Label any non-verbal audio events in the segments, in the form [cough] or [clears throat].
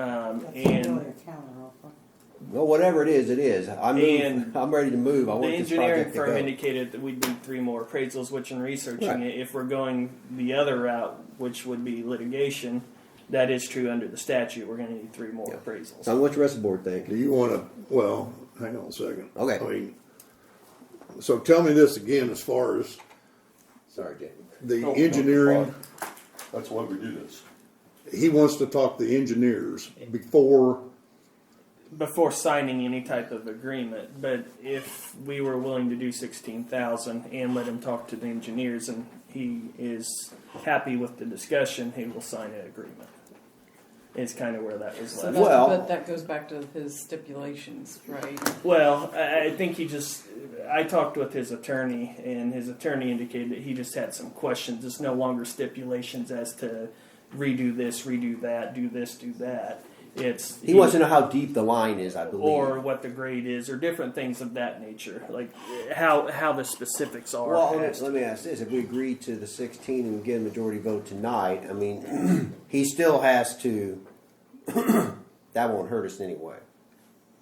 Um, and Well, whatever it is, it is. I'm And [laughs] I'm ready to move. I the want this engineering project to firm go. indicated that we'd need three more appraisals, which in researching Right. it, if we're going the other route, which would be litigation, that is true under the statute. We're going to need three more Yeah. appraisals. so what the rest of the board think? Do you want to? Well, hang on a second. Okay. I mean, so tell me this again as far as Sorry, Jay. Oh, the No, no, engineering. fine. That's why we do this. he wants to talk to the engineers before. before signing any type of agreement. But if we were willing to do sixteen thousand and let him talk to the engineers, and he is happy with the discussion, he will sign an agreement. Is kind of where that was So left. that, Well- but that goes back to his stipulations, right? Well, I I think he just. I talked with his attorney, and his attorney indicated that he just had some questions. It's no longer stipulations as to redo this, redo that, do this, do that. It's He wants to know how deep the line is. I believe. or what the grade is, or different things of that nature, like how how the specifics are. well, let as me, let me ask this: If we agree to the 16 and we get a majority vote tonight, I mean, [clears throat] he still has to. [clears throat] that won't hurt us anyway.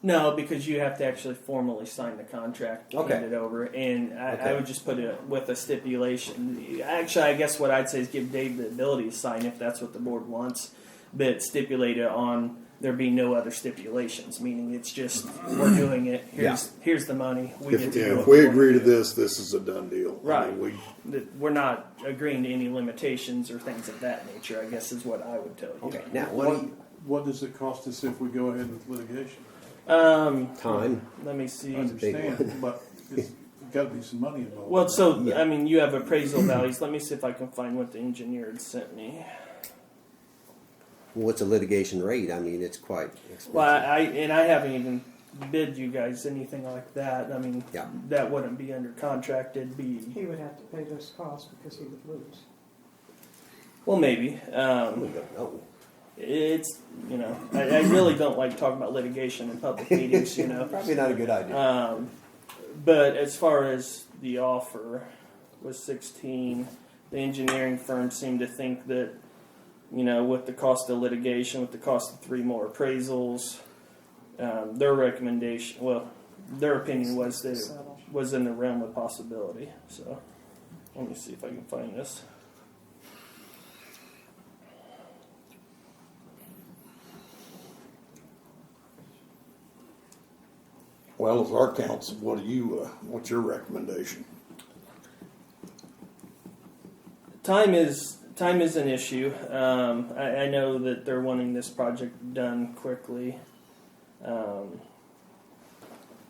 No, because you have to actually formally sign the contract, hand Okay. it over, and I, I Okay. would just put it with a stipulation. Actually, I guess what I'd say is give Dave the ability to sign if that's what the board wants, but stipulate it on there being no other stipulations. Meaning, it's just we're doing it. Here's here's the money. We get If, to yeah, do if what we wanna agree to do. this, this is a done deal. I Right. mean, we, That we're not agreeing to any limitations or things of that nature. I guess is what I would tell you. Okay. Now, what, do What does it cost us if we go ahead with litigation? Um, you, time? let me see. I big understand, but it's gotta be some money involved. Well, so Yeah. I mean, you have [clears throat] appraisal values. Let me see if I can find what the engineer had sent me. What's a litigation rate? I mean, it's quite expensive. Well, I, I and I haven't even bid you guys anything like that. I mean, Yeah. that wouldn't be under contract. It'd be He would have to pay those costs because he would lose. well, maybe. we Um, don't know. it's you know, I, I really don't like talking about litigation in public meetings. You [laughs] know, Probably not a good idea. Um, but as far as the offer was 16, the engineering firm seemed to think that, you know, with the cost of litigation, with the cost of three more appraisals, um, their recommendation, well, their opinion was that it Settle. was in the realm of possibility. So let me see if I can find this. well, as our council, what do you? Uh, what's your recommendation? time is time is an issue. Um, I, I know that they're wanting this project done quickly. Um,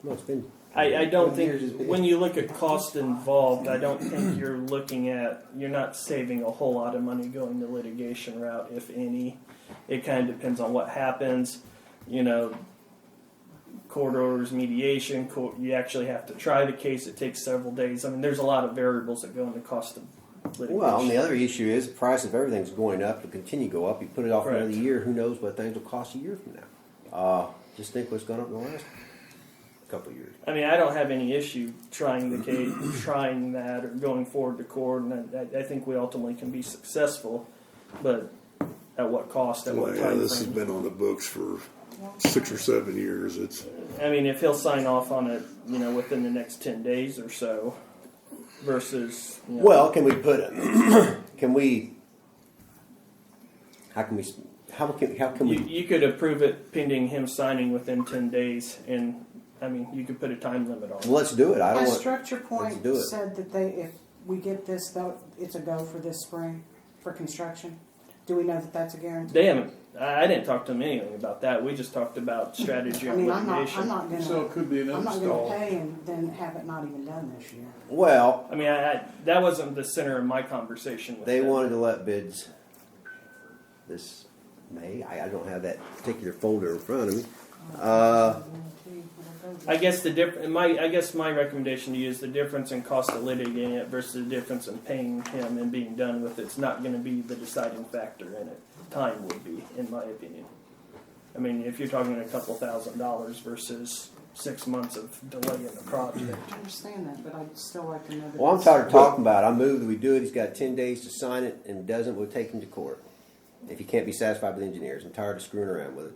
No, it's been. I, I don't Years has think been- when you look at [laughs] cost involved, I don't think you're looking at you're not saving a whole lot of money going the litigation route, if any. It kind of depends on what happens. You know, court orders, mediation. Court, you actually have to try the case. It takes several days. I mean, there's a lot of variables that go into cost of litigation. Well, and the other issue is the price of everything's going up. It'll continue to go up. You put it off another Correct. year, who knows what things will cost a year from now. Uh, just think what's gone up in the last couple of years. I mean, I don't have any issue trying the case, trying that, or going forward to court, and I, I think we ultimately can be successful, but at what cost, at Well, what yeah, time this has frame? been on the books for six or seven years. It's I mean, if he'll sign off on it, you know, within the next ten days or so, versus, you know, Well, can we put [clears throat] it? can we? How can we? s- How can? How can you, we? you could approve it pending him signing within ten days, and, I mean, you could put a time limit on it. Let's do it. I My don't want. structure point do it. said that they, if we get this, though, it's a go for this spring for construction. Do we know that that's a guarantee? They haven't, I, I didn't talk to him anything about that, we just talked about strategy I on mean, I'm not, I'm litigation. not So gonna, it could be an I'm not gonna install. pay and then have it not even done this year. Well, I mean, I, I, that wasn't the center of my conversation with they him. wanted to let bids this May. I, I don't have that particular folder in front of me. Uh, I guess the diff- my I guess my recommendation to you is the difference in cost of litigating it versus the difference in paying him and being done with it's not going to be the deciding factor in it. Time would be, in my opinion. I mean, if you're talking a couple thousand dollars versus six months of delay in the project, I understand that, but I'd still like to know that. Well, I'm this- tired of talking about it. I move that we do it. He's got ten days to sign it, and doesn't, we'll take him to court. If he can't be satisfied with engineers, I'm tired of screwing around with it.